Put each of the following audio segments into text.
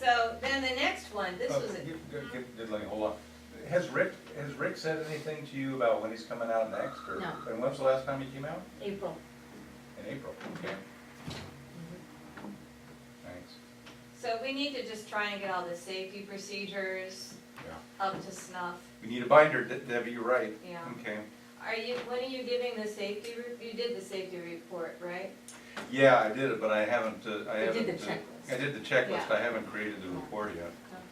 So then the next one, this Oh, was, a- you- you- you- Just let me, hold on. Has Rick, has Rick said anything to you about when he's coming out next? or- No. And when's the last time he came out? April. In April, okay. Mm-hmm. Thanks. so we need to just try and get all the safety procedures Yeah. up to snuff. We need a binder, De- Debbie, you're right. Yeah. Okay. Are you, when are you giving the safety, re- you did the safety report, right? Yeah, I did it, but I haven't, uh, I You haven't. did the uh, checklist. I did the checklist, Yeah. I haven't created the report yet.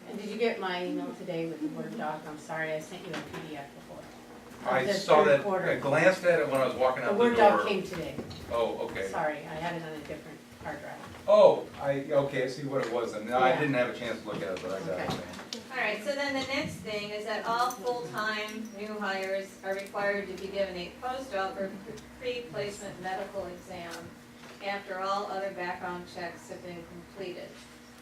And Okay. did you get my email today with the Word doc? I'm sorry, I sent you a PDF before. Of I the saw third that, quarter. I glanced at it when I was walking The out the Word doc door. came today. Oh, okay. Sorry, I had it on a different hard drive. Oh, I, okay, I see what it was, and I Yeah. didn't have a chance to look at it, but I got it. Okay. All right, so then the next thing is that all full-time new hires are required to be given a postdoc or pre-placement medical exam after all other background checks have been completed.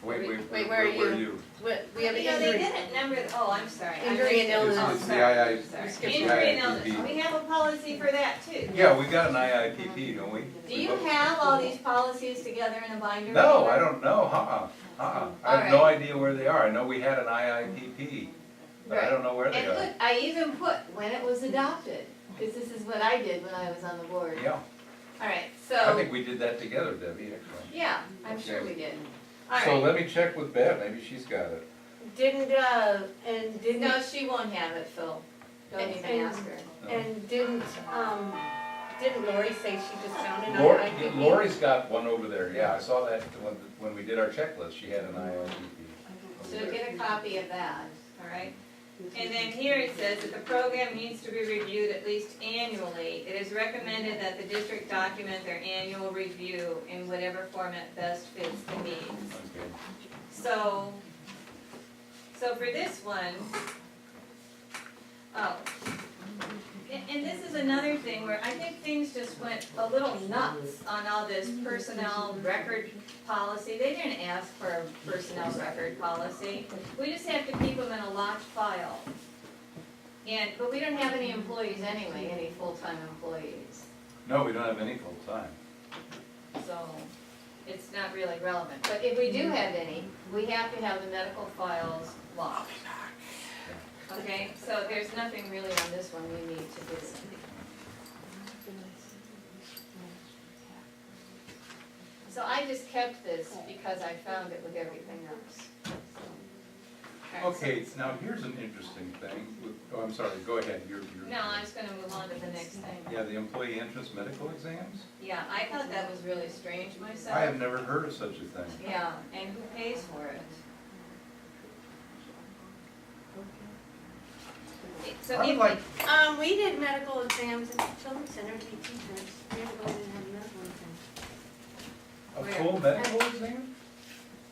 Wait, wait, Wait, wait, where are where are you? you? We, we have an You know, they injury. didn't number, oh, I'm sorry. I Injury and missed it. illness. Oh, It's the sorry, II sorry. You skipped Injury and it. illness, we have a policy for that too. Yeah, we got an IIPP, don't we? Do you have all these policies together in a binder? No, I don't know, uh-uh, uh-uh. I have no Alright. idea where they are. I know we had an IIPP, but I Right. don't know where they And are. put, I even put when it was adopted, because this is what I did when I was on the board. Yeah, All right, I so, think we did that together, Debbie, actually. yeah, I'm sure we did. All So right, let me check with Bev, maybe she's got it. Didn't, uh, and No, didn't, she won't have it, Phil. Don't And- even and- ask her. and didn't, um, didn't Lori say she just found an Lori, IIPP? Lori's got one over there, yeah, I saw that when, when we did our checklist, she had an IIPP. So get a copy of that. all right. And then here it says that the program needs to be reviewed at least annually. It is recommended that the district document their annual review in whatever format best fits the needs. Okay. So, so for this one, oh, and, and this is another thing where I think things just went a little nuts on all this personnel record policy. They didn't ask for a personnel record policy. We just have to keep them in a locked file. And, but we don't have any employees anyway, any full-time employees, No, we don't have any full-time. so it's not really relevant. But if we do have any, we have to have the medical files locked. Okay, so there's nothing really on this one we need to do. So I just kept this because I found it with everything else. All right, so- Okay, now here's an interesting thing, with- oh, I'm sorry, go ahead, you're, you're. No, I'm just gonna move on to the next thing. Yeah, the employee entrance medical exams? Yeah, I thought that was really strange myself. I have never heard of such a thing. Yeah, and who pays for it? So I would if- like, Um, we did medical exams at the children's center, we teachers, we had to go in and have medical exams. a Where? full medical exam?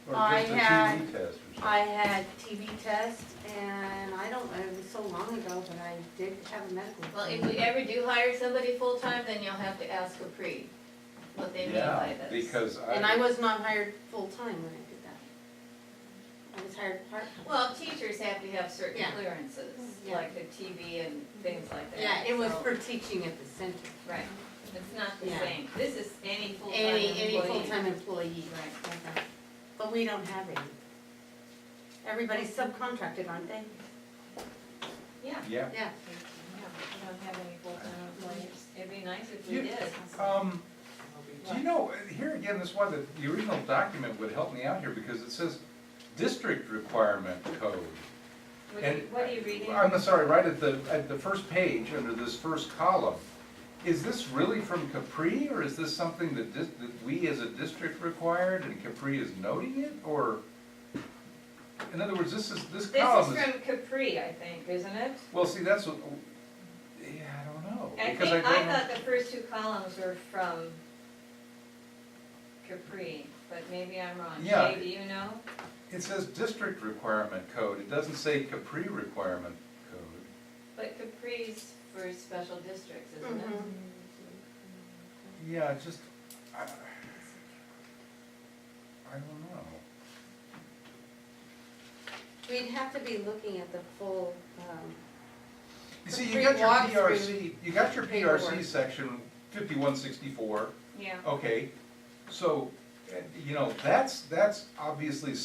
Or I just a had- TB test or something? I had TB test and I don't, it was so long ago, but I did have a medical. Well, if exam. we ever do hire somebody full-time, then you'll have to ask Capri what they mean by Yeah, this. because And I I, was not hired full-time when I did that. I was hired part-time. Well, teachers have to have certain Yeah. clearances, Yeah. like the TV and things like that. Yeah, it was so- for teaching at the center. Right, it's not the Yeah. same, this is any full-time Any, employee. any full-time employee. Right, Okay. But we don't have any. Everybody's subcontracted, aren't they? yeah, yeah, Yeah. yeah, we don't have any full-time employees, it'd be nice if we You- did. um, do you know, here again, this is why the, the original document would help me out here, because it says district requirement code. What are you- and- What are you reading? I'm sorry, right at the, at the first page, under this first column, is this really from Capri, or is this something that dis, that we as a district required, and Capri is noting it, or? In other words, this is, this This column is is, from Capri, I think, isn't it? well, see, that's, what- yeah, I don't know, I because I think, don't I know. thought the first two columns were from Capri, but maybe I'm wrong. Yeah. Jay, do you know? It says district requirement code, it doesn't say Capri requirement code. But Capri's for special districts, isn't it? Yeah, it's just, I, I don't know. We'd have to be looking at the full, um, You see, you Capri got your walkthrough PRC, you got your PRC paperwork. section fifty-one sixty-four, eh, Yeah. okay, so, uh, you know, that's, that's obviously